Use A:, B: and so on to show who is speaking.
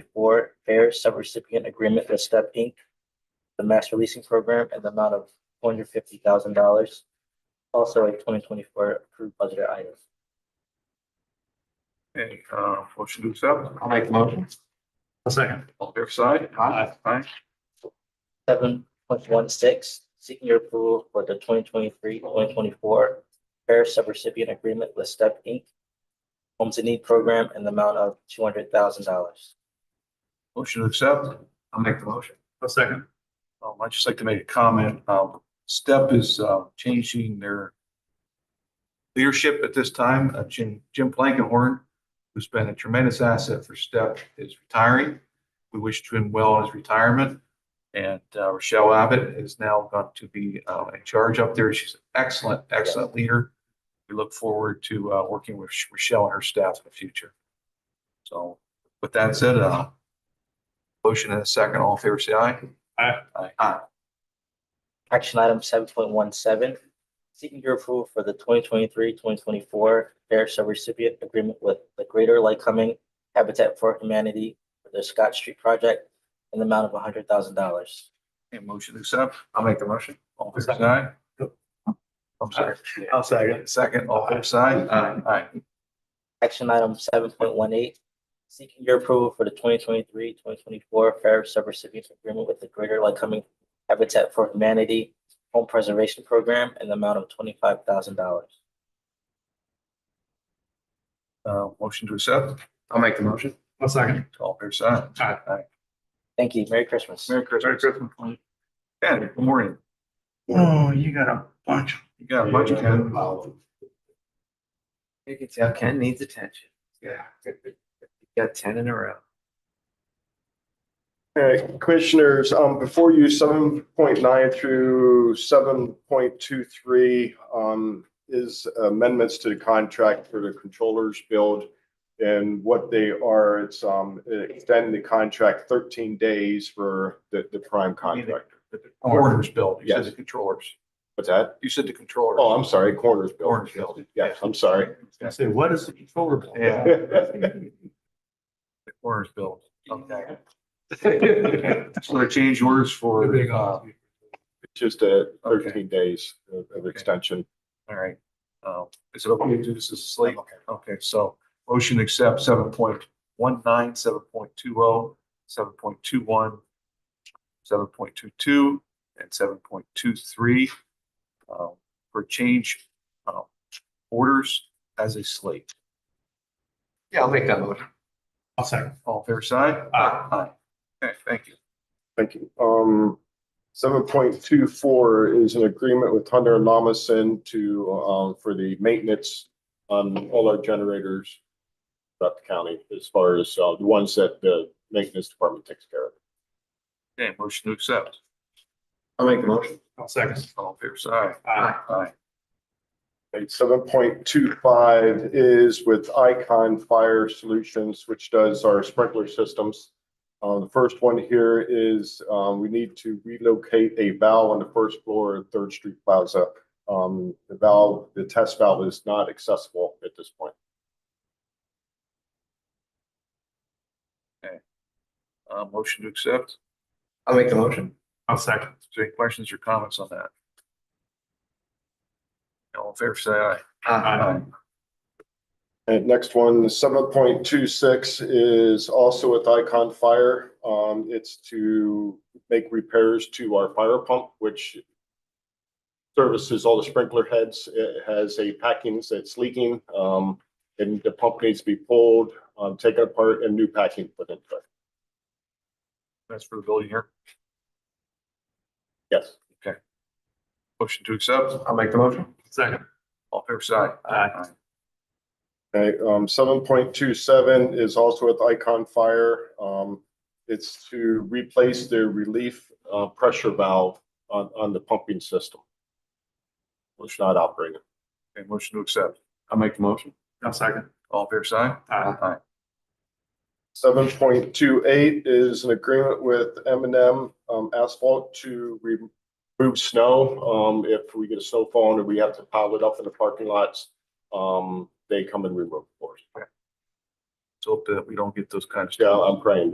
A: twenty-four fair subrecipient agreement with Step Inc. The mass releasing program and the amount of four hundred fifty thousand dollars. Also a twenty twenty-four approved budget item.
B: Okay, uh, motion to accept,
C: I'll make the motion.
D: A second.
B: all fair side?
C: Aye.
B: Aye.
A: Seven point one six, seeking your approval for the 2023-2024 fair subrecipient agreement with Step Inc. Homes in Need program and the amount of two hundred thousand dollars.
B: Motion to accept,
C: I'll make the motion.
D: A second.
B: um, I'd just like to make a comment, um, Step is, uh, changing their leadership at this time, uh, Jim, Jim Plankenhorn, who's been a tremendous asset for Step, is retiring. We wish him well in his retirement. And, uh, Rochelle Abbott is now going to be, uh, in charge up there. She's an excellent, excellent leader. We look forward to, uh, working with Rochelle and her staff in the future. So with that said, uh, motion and a second, all in favor, say aye. Aye. Aye.
A: Action item seven point one seven, seeking your approval for the 2023-2024 fair subrecipient agreement with the Greater Lycoming Habitat for Humanity for the Scott Street project and the amount of hundred thousand dollars.
B: And motion to accept,
C: I'll make the motion.
B: all fair side?
D: Yep.
B: I'm sorry.
D: I'll second.
B: Second, all fair side?
C: Aye.
B: Aye.
A: Action item seven point one eight, seeking your approval for the 2023-2024 fair subrecipient agreement with the Greater Lycoming Habitat for Humanity Home Preservation Program and the amount of twenty-five thousand dollars.
B: Uh, motion to accept,
C: I'll make the motion.
D: A second.
B: all fair side?
D: Aye.
A: Thank you. Merry Christmas.
B: Merry Christmas.
D: Christmas.
B: Ken, good morning.
D: Oh, you got a bunch.
B: You got a budget, Ken?
C: You can tell Ken needs attention. Yeah. Got ten in a row.
E: Uh, Commissioners, um, before you, seven point nine through seven point two three, um, is amendments to the contract for the controllers build. And what they are, it's, um, extend the contract thirteen days for the, the prime contractor.
B: Coroner's bill, you said the
E: Yes.
B: controllers,
E: What's that?
B: you said the controllers.
E: Oh, I'm sorry, corners build.
B: Coroner's bill.
E: Yes, I'm sorry.
D: I say, what is the controller? bill?
B: Yeah.
E: Yes,
B: The Coroner's bill, okay.
D: They're
B: So they change orders for,
D: big
B: uh, all
D: on it.
E: Just uh
B: Okay.
E: thirteen days of- of extension.
B: right. Uh, is it okay to do this as a slate? Okay, so motion to accept seven point one nine, seven point two oh, seven point two one, seven point two two, and seven point two three um, for change uh, orders as a slate.
C: Yeah, I'll make that motion.
D: I'll second.
B: All fair side?
D: Aye.
B: Okay, thank you.
E: Thank you. Um, seven point two four is an agreement with Hunter and Lamason to, um, for the maintenance on all our generators throughout the county as far as, uh, the ones that the maintenance department takes care of.
B: Okay, motion to accept.
C: I'll make the motion.
D: I'll second.
B: All fair side?
D: Aye.
B: Aye.
E: seven point two five is with Icon Fire Solutions, which does our sprinkler systems. Uh, the first one here is, um, we need to relocate a valve on the first floor of Third Street Plaza. Um, the valve, the test valve is not accessible at this point.
B: Uh, motion to accept.
C: I'll make the motion.
D: I'll second.
B: Is there Any questions or comments on that? All fair side? Aye.
D: Aye.
E: And next one, seven point two six is also with Icon Fire. Um, it's to make repairs to our fire pump, which services all the sprinkler heads. It has a packing that's leaking, um, and the pump needs to be pulled, um, taken apart and new packing put in. place.
B: That's for the building here.
E: Yes.
B: Motion to accept.
C: I'll make the motion.
D: Second.
B: All fair side?
D: Aye.
E: Okay, um, seven point two seven is also with Icon Fire. Um, it's to replace the relief, uh, pressure valve on, on the pumping system. Which not operating.
B: Okay, motion to accept.
C: I'll make the motion.
D: I'll second.
B: All fair side?
D: Aye.
B: Aye.
E: Seven point two eight is an agreement with M and M um, Asphalt to remove snow. Um, if we get a snowfall and we have to pile it up in the parking lots, um, they come and remove it for us.
B: So that we don't get those kinds of.
E: Yeah, I'm praying